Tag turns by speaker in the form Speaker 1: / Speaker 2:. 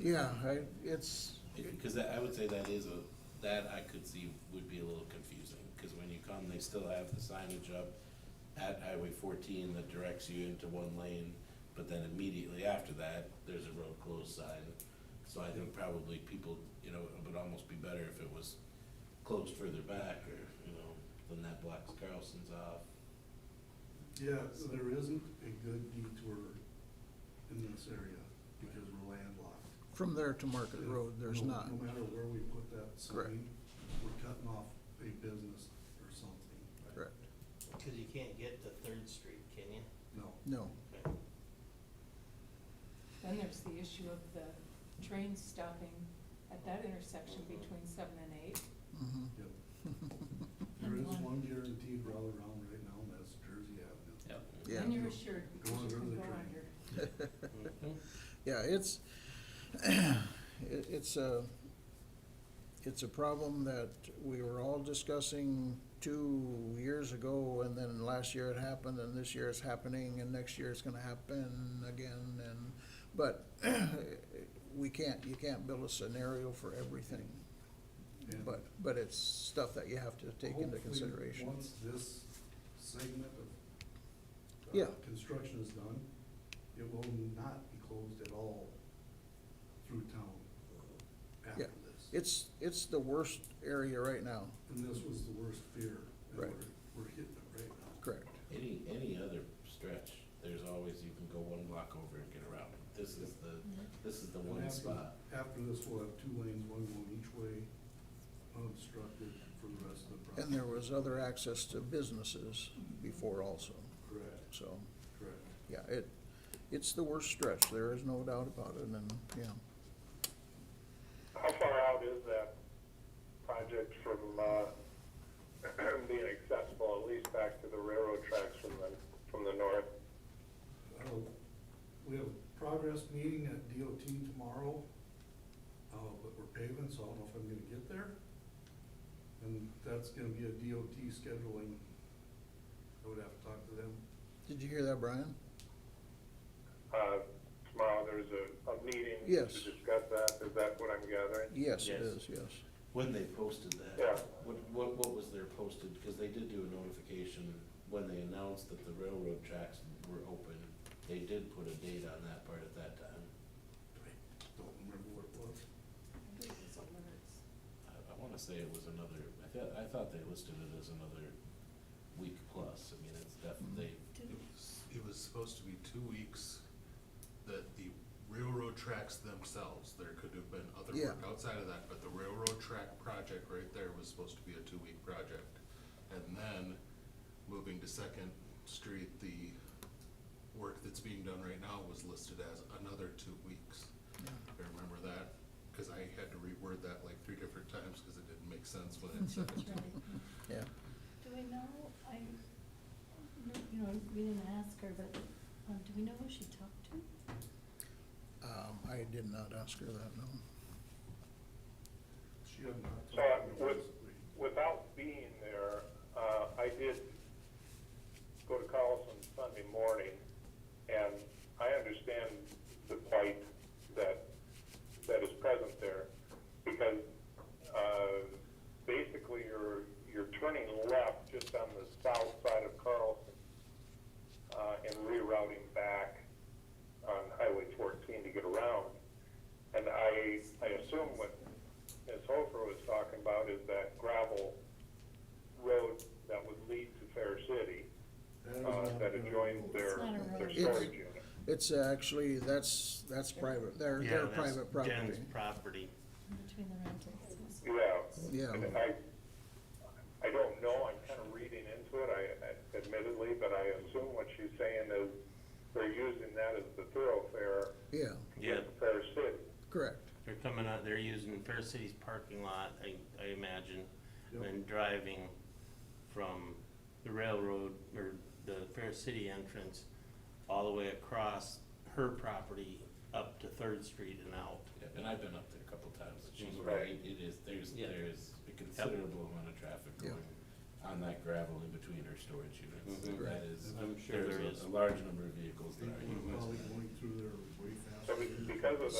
Speaker 1: yeah, I, it's,
Speaker 2: Because that, I would say that is a, that I could see would be a little confusing, because when you come, they still have the signage up at Highway fourteen that directs you into one lane, but then immediately after that, there's a road closed sign. So I think probably people, you know, it would almost be better if it was closed further back, or, you know, then that blocks Carlson's off.
Speaker 3: Yeah, so there isn't a good detour in this area because we're landlocked.
Speaker 1: from there to Market Road, there's
Speaker 3: No-
Speaker 1: not.
Speaker 3: No matter where we put that
Speaker 1: Correct.
Speaker 3: sign, we're cutting off a business or something.
Speaker 1: Correct.
Speaker 4: Cause you can't get to Third Street, can you?
Speaker 3: No.
Speaker 1: No,
Speaker 4: Okay.
Speaker 5: Then there's the issue of the trains stopping at that intersection between seven and eight.
Speaker 1: mhm.
Speaker 3: Yep. There is one guaranteed route around right now, and that's Jersey Avenue.
Speaker 4: Yep.
Speaker 1: Yeah.
Speaker 5: And you're assured because you
Speaker 3: Going
Speaker 5: can
Speaker 3: under the
Speaker 5: go
Speaker 3: train.
Speaker 5: under.
Speaker 4: Mhm.
Speaker 1: Yeah, it's, it, it's a, it's a problem that we were all discussing two years ago, and then last year it happened, and this year it's happening, and next year it's gonna happen again, and, but we can't, you can't build a scenario for everything,
Speaker 3: And
Speaker 1: but, but it's stuff that you have to take into
Speaker 3: hopefully,
Speaker 1: consideration.
Speaker 3: Once this segment of. uh,
Speaker 1: Yeah.
Speaker 3: Construction is done, it will not be closed at all through town after
Speaker 1: Yeah.
Speaker 3: this.
Speaker 1: It's, it's the worst area right now,
Speaker 3: And this was the worst fear. and
Speaker 1: Right.
Speaker 3: We're, we're hitting it right now.
Speaker 1: correct?
Speaker 2: Any, any other stretch, there's always, you can go one block over and get around. This is the, this is the
Speaker 3: And
Speaker 2: one
Speaker 3: after-
Speaker 2: spot.
Speaker 3: After this, we'll have two lanes, one going each way, unobstructed for the rest of the project.
Speaker 1: And there was other access to businesses before also,
Speaker 3: Correct,
Speaker 1: so,
Speaker 3: correct.
Speaker 1: yeah, it, it's the worst stretch, there is no doubt about it, and, yeah.
Speaker 6: How far out is that project from uh, being accessible, at least back to the railroad tracks from the, from the north?
Speaker 3: Uh, We have a progress meeting at DOT tomorrow, uh, but we're paving, so I don't know if I'm gonna get there. And that's gonna be a DOT scheduling. I would have to talk to them.
Speaker 1: Did you hear that, Brian?
Speaker 6: Uh, Tomorrow, there's a, a meeting to
Speaker 1: Yes.
Speaker 6: discuss that, is that what I'm gathering?
Speaker 1: Yes, it
Speaker 2: Yes.
Speaker 1: is, yes.
Speaker 2: When they posted that?
Speaker 6: Yeah.
Speaker 2: What, what, what was their posted, because they did do a notification when they announced that the railroad tracks were open. They did put a date on that part at that time.
Speaker 3: I don't remember what it was.
Speaker 5: I believe it's alerts.
Speaker 2: I, I wanna say it was another, I thought, I thought they listed it as another week plus. I mean, it's definitely,
Speaker 7: It was, it was supposed to be two weeks that the railroad tracks themselves, there could have been other work
Speaker 1: Yeah.
Speaker 7: outside of that, but the railroad track project right there was supposed to be a two-week project. And then, moving to Second Street, the work that's being done right now was listed as another two weeks. I remember that, cause I had to reword that like three different times, cause it didn't make sense when it said it.
Speaker 1: Yeah,
Speaker 8: Do we know, I, no, you know, we didn't ask her, but, um, do we know who she talked to?
Speaker 1: um, I did not ask her that, no.
Speaker 3: She had not.
Speaker 6: So, uh,
Speaker 3: told me
Speaker 6: would-
Speaker 3: last week.
Speaker 6: Without being there, uh, I did go to Carlson Sunday morning, and I understand the plight that, that is present there, because, uh, basically you're, you're turning left just on the south side of Carlson, uh, and rerouting back on Highway fourteen to get around. And I, I assume what Ms. Hofer was talking about is that gravel road that would lead to Fair City,
Speaker 3: That is
Speaker 6: uh,
Speaker 3: not
Speaker 6: that
Speaker 3: gonna be
Speaker 6: adjoins
Speaker 3: able-
Speaker 6: their,
Speaker 8: It's not a
Speaker 6: their
Speaker 8: road.
Speaker 6: storage unit.
Speaker 1: It's actually, that's, that's private, they're,
Speaker 4: Yeah,
Speaker 1: they're
Speaker 4: that's
Speaker 1: private property.
Speaker 4: Jen's property.
Speaker 8: Between the rentals.
Speaker 6: Yeah.
Speaker 1: Yeah,
Speaker 6: And I, I don't know, I'm kind of reading into it, I- I, admittedly, but I assume what she's saying is they're using that as the thoroughfare
Speaker 1: yeah,
Speaker 6: to
Speaker 4: Yeah.
Speaker 6: get to Fair City.
Speaker 1: correct,
Speaker 4: They're coming out, they're using Fair City's parking lot, I, I imagine,
Speaker 3: Yep.
Speaker 4: and driving from the railroad or the Fair City entrance all the way across her property up to Third Street and out.
Speaker 2: yeah, and I've been up there a couple times, and she's
Speaker 6: Mhm.
Speaker 2: right, it is, there's,
Speaker 4: Yeah.
Speaker 2: there is a considerable amount of traffic
Speaker 1: Yeah.
Speaker 2: going on that gravel in between her storage units. And
Speaker 1: Mhm.
Speaker 2: that is,
Speaker 4: Mm-hmm. I'm sure there
Speaker 2: there's
Speaker 4: is. Mm-hmm.
Speaker 2: a, a large number of vehicles that are
Speaker 3: People are
Speaker 2: utilizing
Speaker 3: probably
Speaker 2: that.
Speaker 3: going through there way faster.
Speaker 6: So be- because of